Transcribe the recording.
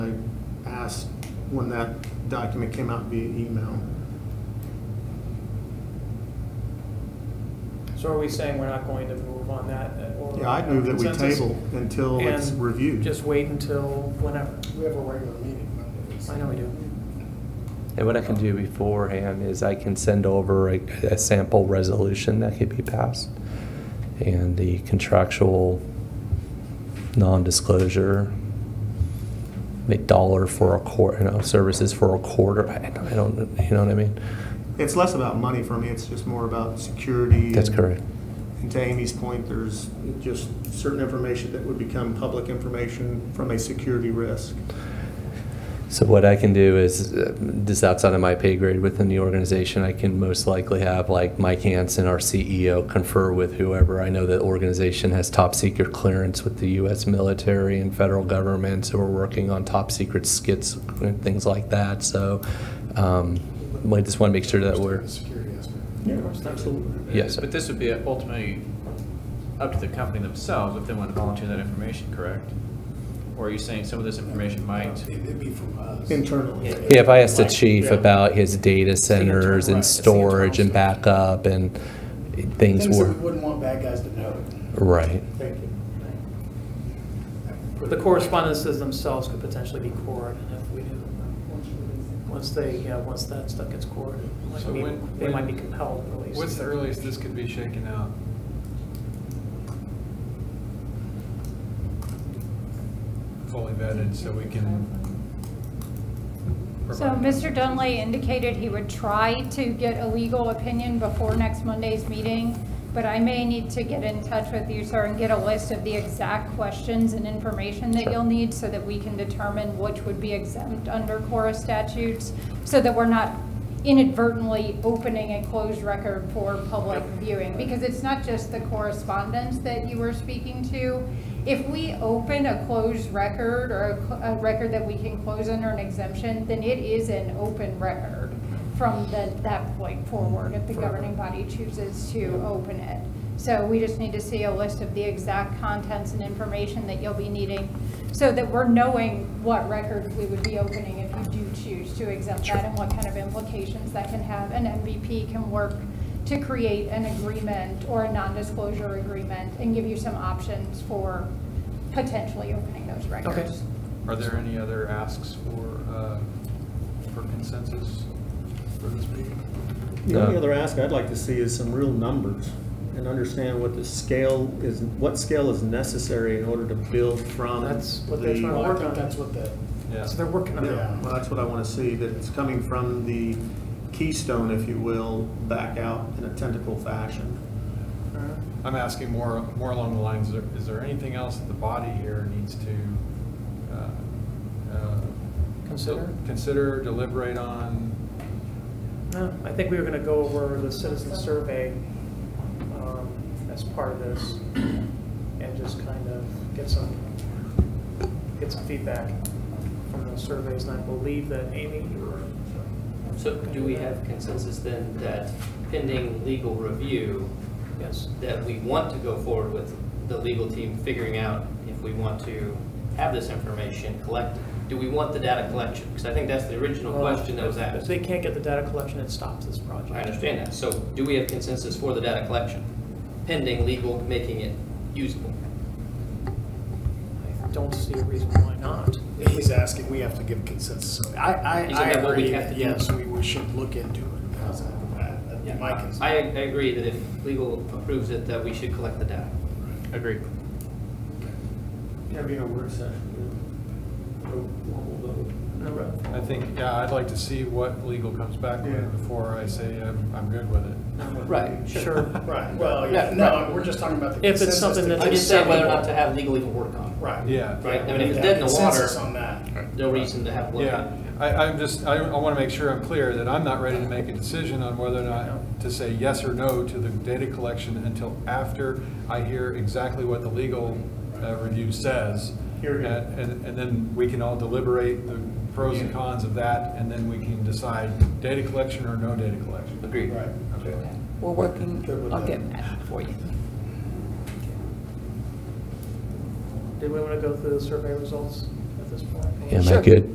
when that document came out via email. So are we saying we're not going to move on that? uh, or- Yeah, I'd move that we Consensus? table until it's And reviewed. Just wait until whenever. We have a regular meeting Mondays. I know we do. And what I can do beforehand is I can send over a, a sample resolution that could be passed and the contractual non-disclosure, the dollar for a quarter, you know, services for a quarter. I don't, I don't, you know what I mean? It's less about money for me, it's just more about security. That's and- correct. And to Amy's point, there's just certain information that would become public information from a security risk. So what I can do is, uh, this outside of my pay grade within the organization, I can most likely have like Mike Hansen, our CEO, confer with whoever. I know that organization has top secret clearance with the U.S. military and federal government, so we're working on top secret skits and things like that. So um, I just want to make sure that we're, The Security aspect. Yeah, absolutely. Yes, sir. But this would be ultimately up to the company themselves if they want to volunteer that information, correct? Or are you saying some of this information might? It'd be from us. Internally. yeah, if I asked the chief Yeah. about his data centers right, and it's the storage and internal backup and things Things that we were, wouldn't want bad guys to know. right. Thank you. The correspondences themselves could potentially be cored, and if we do, once they, yeah, once that stuff gets cored, it might So be- when- they when- might be compelled to release. What's the earliest this could be shaken out? Fully vetted, so we can. So provide- Mr. Dunley indicated he would try to get a legal opinion before next Monday's meeting, but I may need to get in touch with you, sir, and get a list of the exact questions and information that Sure. you'll need so that we can determine which would be exempt under Cora statutes, so that we're not inadvertently opening a closed record for public viewing. Because it's not just the correspondence that you were speaking to. If we open a closed record or a cl- a record that we can close under an exemption, then it is an open record from the- that point forward if the governing body chooses to open it. So we just need to see a list of the exact contents and information that you'll be needing so that we're knowing what records we would be opening if you do choose to exempt that and what kind of implications that can have. And MVP can work to create an agreement or a non-disclosure agreement and give you some options for potentially opening those records. Are there any other asks for, uh, for consensus for this meeting? The only Yeah. other ask I'd like to see is some real numbers and understand what the scale is, what scale is necessary in order to build from. That's what they're the- trying to Well, I work think on. that's what the, Yeah. So they're working on Yeah, it. well, that's what I want to see, that it's coming from the keystone, if you will, back out in a tentacle fashion. I'm asking more, more along the lines, is there- is there anything else that the body here needs to uh, uh, Consider? Consider, deliberate on? No, I think we were going to go over the citizen survey um, as part of this and just kind of get some, get some feedback from those surveys. And I believe that Amy, you were, So do we have consensus then that pending legal review, yes. that we want to go forward with the legal team figuring out if we want to have this information collected? Do we want the data collection? Because I think that's the original question that was If asked. uh, they can't get the data collection, it stops this project. I understand that. So do we have consensus for the data collection, pending legal making it usable? I don't see a reason why not. he's asking, we have to give consensus. I, I, Isn't I that what we agree have that, to do? yes, we, we should look into it. How's that? Uh, that'd be My I I consent. agree that if legal approves it, that we should collect the data. Agreed. Gotta be a word session. No. I think, yeah, I'd like to see what legal comes back Yeah. with before I say I'm, I'm good with it. Right, Sure. Right, well, yeah, no, we're just talking about the If it's consensus. something that that's I just said whether or not to acceptable. have legal even work on it. Right. Yeah. Right, I mean, We if it's have dead in the water- Consensus on that. No reason to have. one. Yeah, I, I'm just, I, I want to make sure I'm clear that I'm not ready to make a decision on whether or not to say yes or no to the data collection until after I hear exactly what the legal uh, review says. Hear, hear. And, and- and then we can all deliberate the pros and cons of that, and then we can decide data collection or no data collection. Agreed. Right. Okay. We're working, Good with I'll that. get that for you. Did we want to go through the survey results at this point? Am I Sure. good?